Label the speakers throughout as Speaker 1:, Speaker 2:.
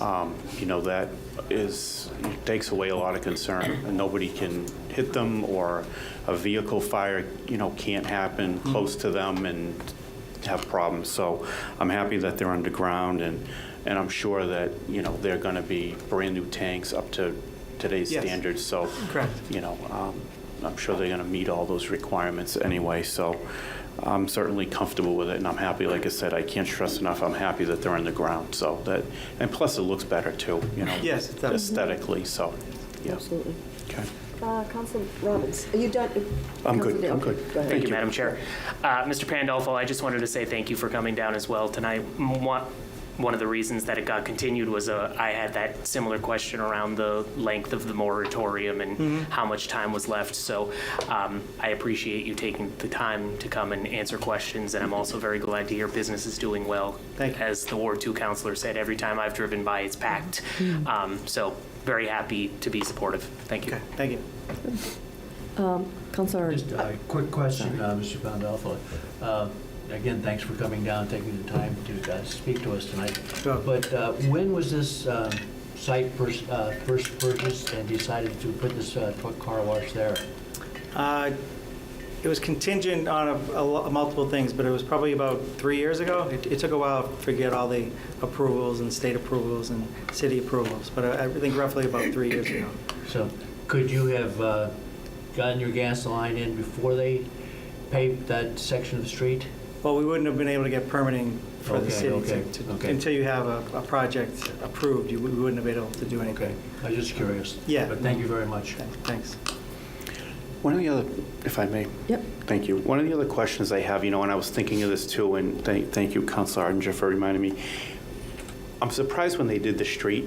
Speaker 1: um, you know, that is, takes away a lot of concern. And Nobody can hit them, or a vehicle fire, you know, can't happen close to them and have problems. So I'm happy that they're underground, and, and I'm sure that, you know, they're going to be brand-new tanks up to today's
Speaker 2: Yes.
Speaker 1: standards, so.
Speaker 2: Correct.
Speaker 1: You know, um, I'm sure they're going to meet all those requirements anyway, so I'm certainly comfortable with it, and I'm happy, like I said, I can't stress enough, I'm happy that they're on the ground, so that, and plus it looks better too, you know.
Speaker 2: Yes, it does.
Speaker 1: Aesthetically, so, yeah.
Speaker 3: Absolutely.
Speaker 1: Okay.
Speaker 3: Uh, Council Robbins, are you done?
Speaker 1: I'm good,
Speaker 3: Council Day,
Speaker 1: I'm
Speaker 3: okay,
Speaker 1: good.
Speaker 3: Go ahead.
Speaker 4: Thank you, Madam Chair. Uh, Mr. Pandolfo, I just wanted to say thank you for coming down as well tonight. M- One one of the reasons that it got continued was uh, I had that similar question around the length of the moratorium and
Speaker 2: Mm-hmm.
Speaker 4: how much time was left. So um, I appreciate you taking the time to come and answer questions, and I'm also very glad to hear business is doing well.
Speaker 2: Thank you.
Speaker 4: As the Ward 2 counselor said, every time I've driven by, it's packed. Um, So very happy to be supportive. Thank you.
Speaker 2: Mm-hmm. Okay, thank you.
Speaker 3: Councilor,
Speaker 5: Just a quick question, uh, Mr. Pandolfo. Uh, Again, thanks for coming down, taking the time to uh, speak to us tonight.
Speaker 2: Sure.
Speaker 5: But uh, when was this um, site pers- uh, first purchased and decided to put this uh, truck car wash there?
Speaker 2: Uh, It was contingent on a- a lo- multiple things, but it was probably about three years ago. It it took a while to get all the approvals and state approvals and city approvals, but I I think roughly about three years ago.
Speaker 5: So could you have uh, gotten your gas line in before they paved that section of the street?
Speaker 2: Well, we wouldn't have been able to get permitting for the
Speaker 5: Okay,
Speaker 2: city
Speaker 5: okay,
Speaker 2: to- to-
Speaker 5: okay.
Speaker 2: until you have a a project approved, you we wouldn't have been able to do anything.
Speaker 5: Okay, I was just curious.
Speaker 2: Yeah.
Speaker 5: But thank you very much.
Speaker 2: Thanks.
Speaker 1: One of the other, if I may,
Speaker 3: yep,
Speaker 1: Thank you. One of the other questions I have, you know, and I was thinking of this too, and thank, thank you, Councilor Arndinger, for reminding me. I'm surprised when they did the street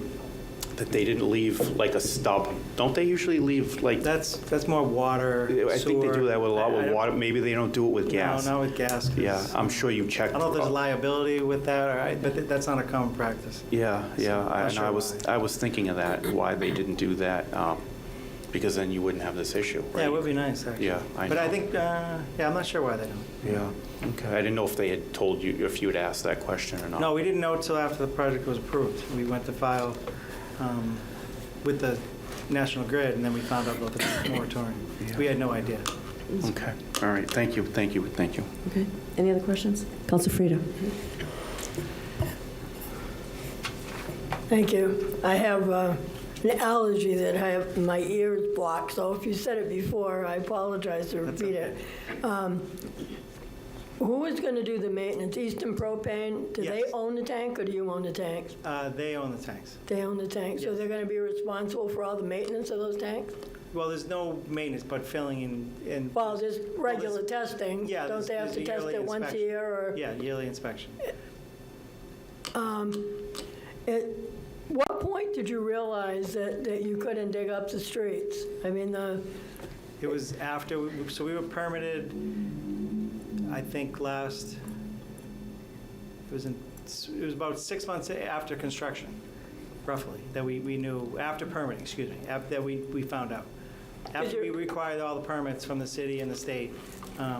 Speaker 1: that they didn't leave like a stub. Don't they usually leave like,
Speaker 2: That's, that's more water,
Speaker 1: I think they do
Speaker 2: sewer.
Speaker 1: that with a lot
Speaker 2: I- I
Speaker 1: with
Speaker 2: don't-
Speaker 1: water. Maybe they don't do it with gas.
Speaker 2: No, not with gas. 'cause
Speaker 1: Yeah, I'm sure you checked.
Speaker 2: I don't know if there's liability with that, all right, but th- that's not a common practice.
Speaker 1: Yeah, yeah, I-
Speaker 2: Not
Speaker 1: and
Speaker 2: sure
Speaker 1: I was,
Speaker 2: why.
Speaker 1: I was thinking of that, why they didn't do that, um, because then you wouldn't have this issue, right?
Speaker 2: Yeah, it would be nice, actually.
Speaker 1: Yeah, I
Speaker 2: But I
Speaker 1: know.
Speaker 2: think, uh, yeah, I'm not sure why they don't.
Speaker 1: Yeah, okay. I didn't know if they had told you, if you had asked that question or not.
Speaker 2: No, we didn't know until after the project was approved. We went to file um, with the National Grid, and then we found out about the moratorium.
Speaker 1: Yeah.
Speaker 2: We had no idea.
Speaker 1: Okay, all right, thank you, thank you, thank you.
Speaker 3: okay. Any other questions? Council Frida?
Speaker 6: Thank you. I have uh, an allergy that I have, my ear is blocked, so if you said it before, I apologize to repeat it. Um, Who is going to do the maintenance? Eastern Propane? Do they
Speaker 2: Yes.
Speaker 6: own the tank, or do you own the tanks?
Speaker 2: Uh, They own the tanks.
Speaker 6: They own the tank, so
Speaker 2: Yes.
Speaker 6: they're going to be responsible for all the maintenance of those tanks?
Speaker 2: Well, there's no maintenance, but filling in, in-
Speaker 6: Well, there's regular testing.
Speaker 2: yeah,
Speaker 6: Don't
Speaker 2: there's-
Speaker 6: they have
Speaker 2: there's
Speaker 6: to
Speaker 2: the
Speaker 6: test
Speaker 2: yearly
Speaker 6: it once a
Speaker 2: inspection.
Speaker 6: year, or?
Speaker 2: yeah, yearly inspection.
Speaker 6: At um, what point did you realize that, that you couldn't dig up the streets? I mean, the,
Speaker 2: It was after, we- so we were permitted, I think, last, it was in, it was about six months after construction, roughly, that we, we knew, after permitting, excuse me, af- that we, we found out. After we
Speaker 6: you're-
Speaker 2: required all the permits from the city and the state,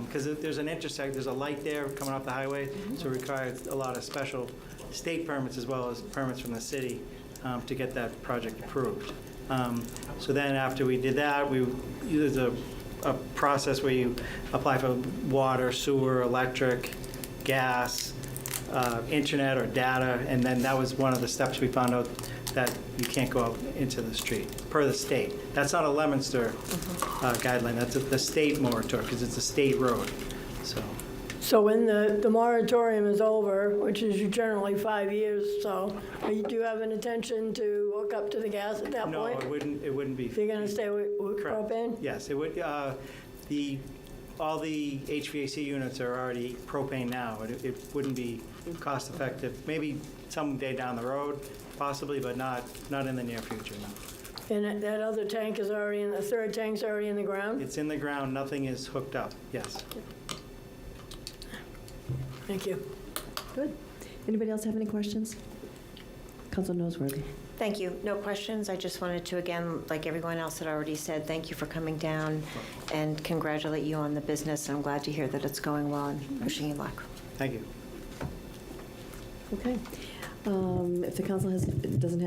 Speaker 2: because there's an intersect, there's a light there coming off the highway, so it required a lot of special state permits as well as permits from the city um, to get that project approved. Um, So then after we did that, we, there's a, a process where you apply for water, sewer, electric, gas, uh, internet or data, and then that was one of the steps we found out that you can't go out into the street, per the state. That's not a Lemonster
Speaker 6: Mm-hmm.
Speaker 2: uh, guideline, that's a- the state moratorium, because it's a state road, so,
Speaker 6: So when the, the moratorium is over, which is generally five years, so are you- do you have an intention to hook up to the gas at that
Speaker 2: no, it
Speaker 6: point?
Speaker 2: wouldn't, it wouldn't be.
Speaker 6: If you're gonna stay with with
Speaker 2: Correct.
Speaker 6: propane?
Speaker 2: Yes, it would, uh, the, all the HVAC units are already propane now. It it wouldn't be cost-effective, maybe someday down the road, possibly, but not, not in the near future, no.
Speaker 6: And that- that other tank is already in, the third tank's already in the ground?
Speaker 2: It's in the ground, nothing is hooked up, yes.
Speaker 6: Thank you.
Speaker 3: Good. Anybody else have any questions? Council Noseworthy?
Speaker 7: Thank you. No questions. I just wanted to, again, like everyone else had already said, thank you for coming down and congratulate you on the business. I'm glad to hear that it's going well and wishing you luck.
Speaker 2: Thank you.
Speaker 3: Okay. Um, If the council has, doesn't have